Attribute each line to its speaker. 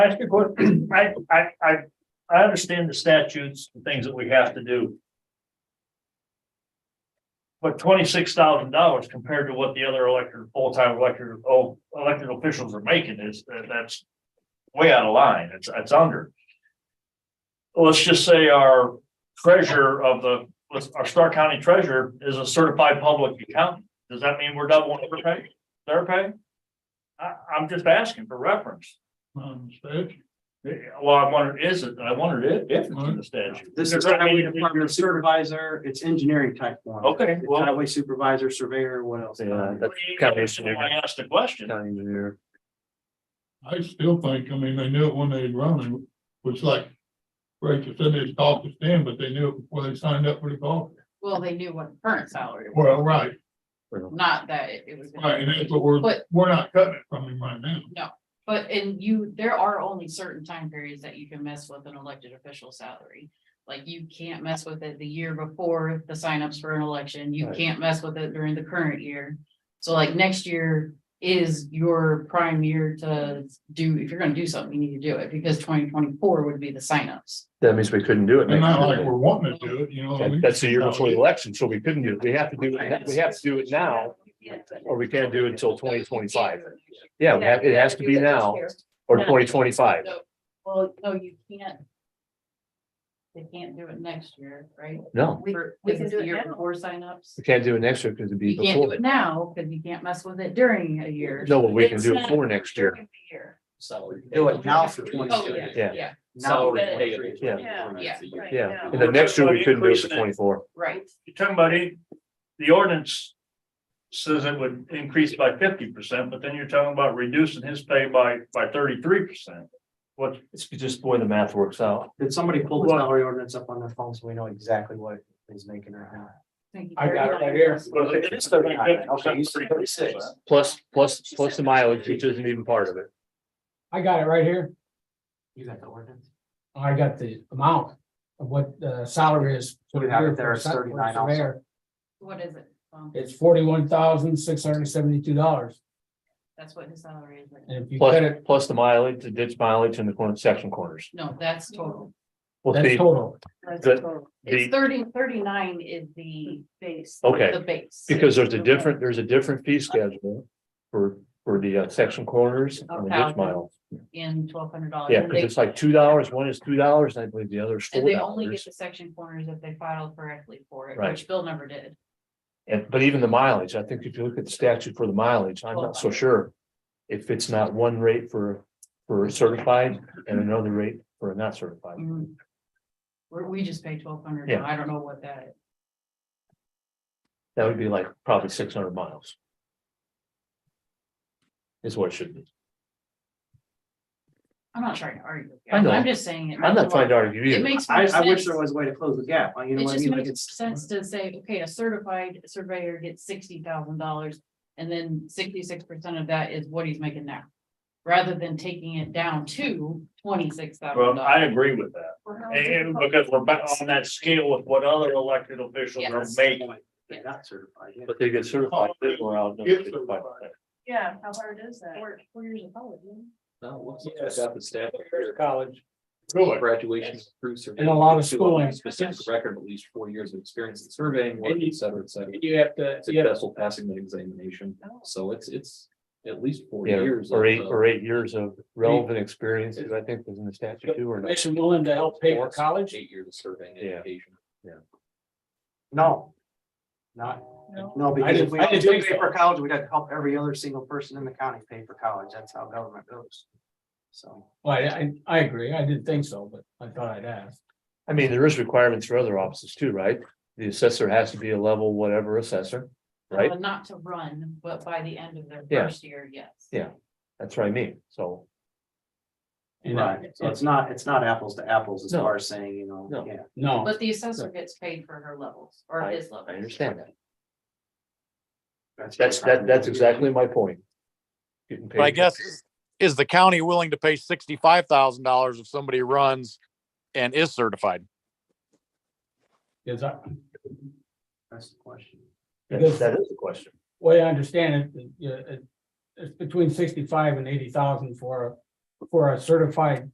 Speaker 1: Ask a question, I, I, I, I understand the statutes and things that we have to do. But twenty-six thousand dollars compared to what the other elected, full-time elected, oh, elected officials are making is, that, that's way out of line, it's, it's under. Let's just say our treasurer of the, let's- our Stark County treasurer is a certified public accountant, does that mean we're doubling her pay, their pay? I, I'm just asking for reference.
Speaker 2: Um, statute.
Speaker 1: Yeah, Eh, Well, I wondered, is it, I wondered if, if it's in the statute.
Speaker 3: This
Speaker 1: Because,
Speaker 3: is
Speaker 1: I
Speaker 3: highway
Speaker 1: mean, if you're-
Speaker 3: department supervisor, it's engineering type one.
Speaker 1: Okay,
Speaker 3: It's
Speaker 1: well,
Speaker 3: Highway supervisor, surveyor, what else?
Speaker 4: Yeah, that's kind of interesting.
Speaker 1: I asked the question,
Speaker 4: County engineer.
Speaker 2: I still think, I mean, they knew it when they run it, was like. Rachel said they talked to Stan, but they knew it before they signed up for the golf.
Speaker 5: Well, they knew what the current salary was,
Speaker 2: Well, right,
Speaker 5: not that it it was.
Speaker 2: right, and that's what we're,
Speaker 5: But-
Speaker 2: we're not cutting it from him right now.
Speaker 5: But and you, there are only certain time periods that you can mess with an elected official salary. Like you can't mess with it the year before the signups for an election. You
Speaker 4: Right.
Speaker 5: can't mess with it during the current year. So like next year is your prime year to do, if you're gonna do something, you need to do it because twenty twenty-four would be the signups.
Speaker 4: That means we couldn't do it.
Speaker 2: And
Speaker 4: next
Speaker 2: not
Speaker 4: year.
Speaker 2: like we're wanting to do it, you know.
Speaker 4: That- That's the year before the election, so we couldn't do it. We have to do it, we have to do it now, or we can't do it until twenty twenty-five. Yeah, we have- it has to be now or twenty twenty-five.
Speaker 5: Well, no, you can't. They can't do it next year, right?
Speaker 4: No,
Speaker 6: We,
Speaker 5: For-
Speaker 6: we
Speaker 5: is
Speaker 6: can
Speaker 5: it
Speaker 6: do
Speaker 5: the
Speaker 6: it
Speaker 5: year
Speaker 6: now.
Speaker 5: Before signups.
Speaker 4: we can't do it next year because it'd be
Speaker 5: You can't do
Speaker 4: before.
Speaker 5: it now because you can't mess with it during a year.
Speaker 4: No, but we can do
Speaker 5: It's
Speaker 4: it for
Speaker 5: not
Speaker 4: next year.
Speaker 5: during the year.
Speaker 3: So do it now for twenty.
Speaker 5: Oh, yeah,
Speaker 4: Yeah.
Speaker 5: yeah,
Speaker 3: Now.
Speaker 4: Yeah.
Speaker 5: Yeah.
Speaker 6: Right
Speaker 4: Yeah,
Speaker 6: now.
Speaker 4: and then next year we couldn't do it for
Speaker 1: Increasing it.
Speaker 4: twenty-four.
Speaker 5: right.
Speaker 1: you're talking about it, the ordinance says it would increase by fifty percent, but then you're talking about reducing his pay by, by thirty-three percent. What,
Speaker 4: It's just the way the math works out.
Speaker 3: Did somebody pull the salary ordinance up on their phone so we know exactly what he's making right now? I got it right here.
Speaker 1: Well, it is 39.
Speaker 3: Okay, you said thirty-six.
Speaker 4: Plus, plus, plus the mileage, which isn't even part of it.
Speaker 7: I got it right here.
Speaker 3: You got the ordinance?
Speaker 7: I got the amount of what the salary is.
Speaker 3: So we have it there as 39 also.
Speaker 7: Surveyor.
Speaker 5: What is it? Um,
Speaker 7: It's forty-one thousand, six hundred and seventy-two dollars.
Speaker 5: That's what his salary is. right now.
Speaker 7: And if you cut
Speaker 4: Plus,
Speaker 7: it,
Speaker 4: plus the mileage, the ditch mileage and the corner, section corners.
Speaker 5: No, that's total.
Speaker 4: Well,
Speaker 7: that's
Speaker 4: see,
Speaker 7: total.
Speaker 4: The-
Speaker 5: It's
Speaker 4: the,
Speaker 5: thirty, thirty-nine is the base.
Speaker 4: Okay.
Speaker 5: The base.
Speaker 4: because there's a different, there's a different fee schedule for, for the uh, section corners and the ditch miles.
Speaker 5: In twelve hundred dollars.
Speaker 4: Yeah, because it's like two dollars, one is two dollars, and I believe the other is
Speaker 5: And
Speaker 4: four
Speaker 5: they only get
Speaker 4: dollars.
Speaker 5: the section corners if they filed correctly for it,
Speaker 4: Right.
Speaker 5: which Bill never did.
Speaker 4: And, but even the mileage, I think if you look at the statute for the mileage, I'm not so sure. If it's not one rate for, for certified and another rate for not certified.
Speaker 5: Mm. We're, we just pay twelve hundred.
Speaker 4: Yeah.
Speaker 5: I don't know what that is.
Speaker 4: That would be like probably six hundred miles. Is what it should be.
Speaker 5: I'm not trying to argue. with you.
Speaker 4: I know.
Speaker 5: I'm just saying. it
Speaker 4: I'm
Speaker 5: makes a
Speaker 4: not trying to
Speaker 5: lot-
Speaker 4: argue
Speaker 5: It
Speaker 4: either.
Speaker 5: makes more
Speaker 3: I, I wish
Speaker 5: sense.
Speaker 3: there was a way to close the gap, you know
Speaker 5: It
Speaker 3: what I
Speaker 5: just
Speaker 3: mean? Like
Speaker 5: makes
Speaker 3: it's.
Speaker 5: sense to say, okay, a certified surveyor gets sixty thousand dollars. And then sixty-six percent of that is what he's making now. Rather than taking it down to twenty-six thousand
Speaker 1: well, I
Speaker 5: dollars.
Speaker 1: agree with that. And because we're back on that scale with what other elected officials are
Speaker 5: Yes.
Speaker 1: making.
Speaker 3: They're not certified. yeah.
Speaker 4: But they get certified. they were out there.
Speaker 2: Get certified.
Speaker 6: Yeah, how hard is that?
Speaker 5: Four years of college. yeah.
Speaker 7: Yes.
Speaker 8: Got the staff
Speaker 7: College.
Speaker 2: Really?
Speaker 8: graduation through surveying.
Speaker 7: And a lot of
Speaker 8: to allow
Speaker 7: schooling.
Speaker 8: Specific record of at least four years of experience in surveying, work,
Speaker 7: And you-
Speaker 8: et cetera, et cetera.
Speaker 7: You have to,
Speaker 8: Successful passing the examination. So it's, it's at least four
Speaker 4: Yeah,
Speaker 8: years.
Speaker 4: or
Speaker 8: of,
Speaker 4: eight,
Speaker 8: uh,
Speaker 4: or eight years of relevant experiences, I think, was in the statute too, or not.
Speaker 7: Commission willing to help pay for
Speaker 8: four-
Speaker 7: college.
Speaker 8: Eight years of surveying
Speaker 4: Yeah.
Speaker 8: education.
Speaker 3: No. Not,
Speaker 6: No.
Speaker 3: no, because if
Speaker 7: didn't-
Speaker 3: we
Speaker 7: I
Speaker 3: all
Speaker 7: didn't
Speaker 3: do
Speaker 7: think
Speaker 3: pay
Speaker 7: so.
Speaker 3: for college, we'd have to help every other single person in the county pay for college. That's how government goes. So.
Speaker 7: Well, I, I, I agree. I didn't think so, but I thought I'd ask.
Speaker 4: I mean, there is requirements for other offices too, right? The assessor has to be a level whatever assessor, right?
Speaker 5: Uh, Not to run, but by the end of their
Speaker 4: Yeah.
Speaker 5: first year, yes.
Speaker 4: Yeah. That's what I mean, so.
Speaker 7: And I-
Speaker 3: Right, so it's not, it's not apples to apples as
Speaker 4: No.
Speaker 3: far as saying, you know,
Speaker 4: No.
Speaker 3: yeah.
Speaker 7: No,
Speaker 5: But the assessor gets paid for her levels or
Speaker 4: I-
Speaker 5: his levels.
Speaker 4: I understand that.
Speaker 3: what
Speaker 4: That's, that, that's exactly my point. Getting
Speaker 9: But I
Speaker 4: paid.
Speaker 9: guess, is- is the county willing to pay sixty-five thousand dollars if somebody runs and is certified?
Speaker 7: because I,
Speaker 3: That's the question.
Speaker 4: That's- That is the question.
Speaker 7: way I understand it, you know, it, it's between sixty-five and eighty thousand for for a certified